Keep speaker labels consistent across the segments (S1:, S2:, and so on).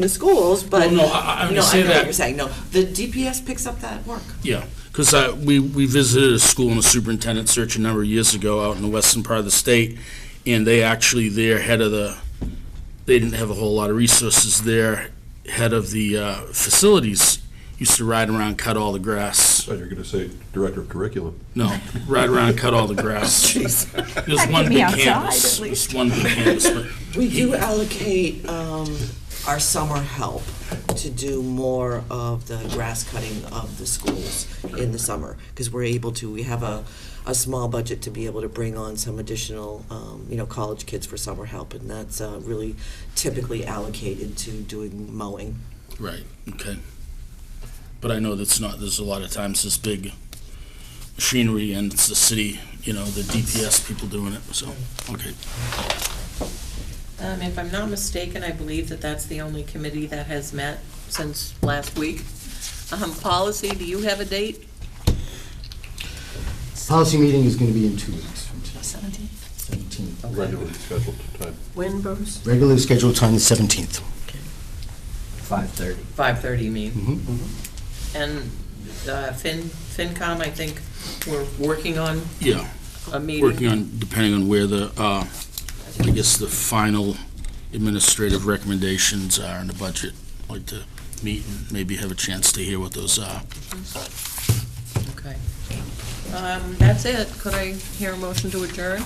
S1: the schools, but.
S2: No, no, I- I
S1: No,
S2: understand
S1: know what
S2: that.
S1: you're saying, no. The DPS picks up that work.
S2: Yeah, because we, we visited a school in a superintendent search a number of years ago out in the western part of the state, and they actually, their head of the, they didn't have a whole lot of resources there. Head of the uh, facilities used to ride around, cut all the grass.
S3: Thought you were going to say director of curriculum.
S2: No, ride around, cut all the grass. It was one
S4: get me
S2: big
S4: outside,
S2: canvas.
S4: at
S2: It was
S4: least.
S2: one big canvas, but
S1: We do allocate um, our summer help to do more of the grass cutting of the schools in the summer, because we're able to, we have a, a small budget to be able to bring on some additional, um, you know, college kids for summer help, and that's uh, really typically allocated to doing mowing.
S2: Right, okay. But I know that's not, there's a lot of times this big machinery and it's the city, you know, the DPS people doing it, so, okay.
S5: Um, If I'm not mistaken, I believe that that's the only committee that has met since last week. Um, Policy, do you have a date?
S6: Policy meeting is going to be in two weeks from today,
S4: Seventeenth.
S6: 17th.
S3: Regularly scheduled time.
S5: When, Bruce?
S6: Regularly scheduled time, the 17th.
S7: 5:30.
S5: 5:30, you mean?
S6: Mhm.
S3: Mm-hmm.
S5: Mm-hmm. And uh, Fin FinCom, I think, we're working on
S2: Yeah,
S5: a meeting.
S2: working on, depending on where the, uh, I guess the final administrative recommendations are in the budget. I'd Like to meet and maybe have a chance to hear what those are.
S5: Okay. Um, That's it. Could I hear a motion to adjourn?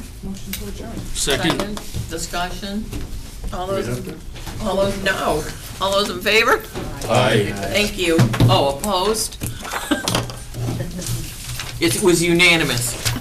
S2: Second?
S5: Discussion? All
S3: we
S5: those,
S3: have to?
S5: all those, no. All those in favor?
S2: Aye.
S5: Thank you. Oh, opposed? It was unanimous.